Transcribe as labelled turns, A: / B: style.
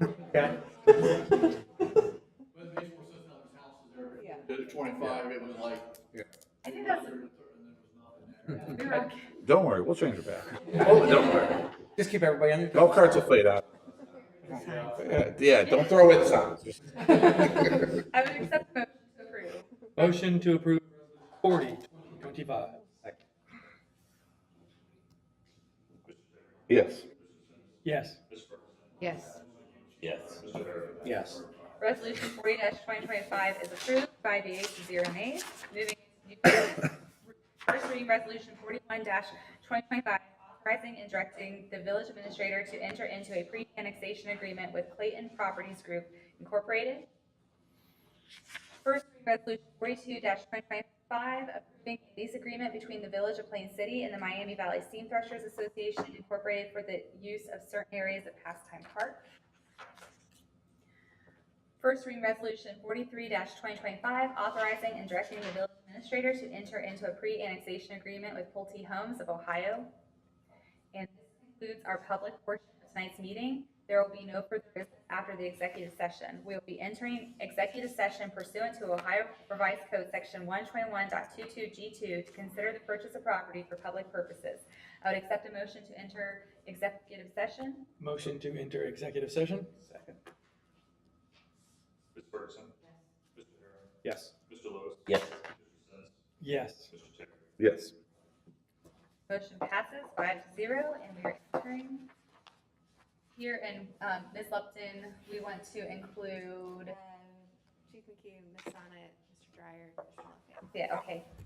A: Okay.
B: But these were such numbers houses there.
C: Yeah.
B: Did it twenty-five, it was like.
D: Yeah.
B: I think there was thirty, and there was nothing there.
D: Don't worry, we'll change it back.
A: Oh, don't worry. Just keep everybody under.
D: No cards will fade out. Yeah, Yeah, don't throw it signs.
C: I would accept the
E: Motion
C: motion to approve.
E: to approve forty twenty-five.
D: Yes.
E: Yes.
C: Yes.
F: Yes.
A: Yes.
C: Resolution forty twenty twenty-five is approved by the eight to zero nays. Moving to first reading resolution forty-one twenty twenty-five, authorizing and directing the village administrator to enter into a pre-annexation agreement with Clayton Properties Group Incorporated. First reading resolution forty-two twenty twenty-five, approving a lease agreement between the village of Plain City and the Miami Valley Steam Threshers Association Incorporated for the use of certain areas of Pastime Park. First reading resolution forty-three twenty twenty-five, authorizing and directing the village administrator to enter into a pre-annexation agreement with Pulte Homes of Ohio. And this concludes our public portion of tonight's meeting. There will be no further business after the executive session. We will be entering executive session pursuant to Ohio Revised Code Section one twenty-one G two to consider the purchase of property for public purposes. I would accept a motion to enter executive session.
E: Motion to enter executive session?
G: Ms. Ferguson. Mr. Herron.
E: Yes.
G: Mr. Lewis.
F: Yes.
G: Mr. Sins.
E: Yes.
G: Mr. Terry.
D: Yes.
C: Motion passes five to zero, and we are entering here, and um, Ms. Lupton, we want to include,
H: Chief McKeon, Ms. Sonnet, Mr. Dryer, Mr. Lefebvre.
C: yeah, okay,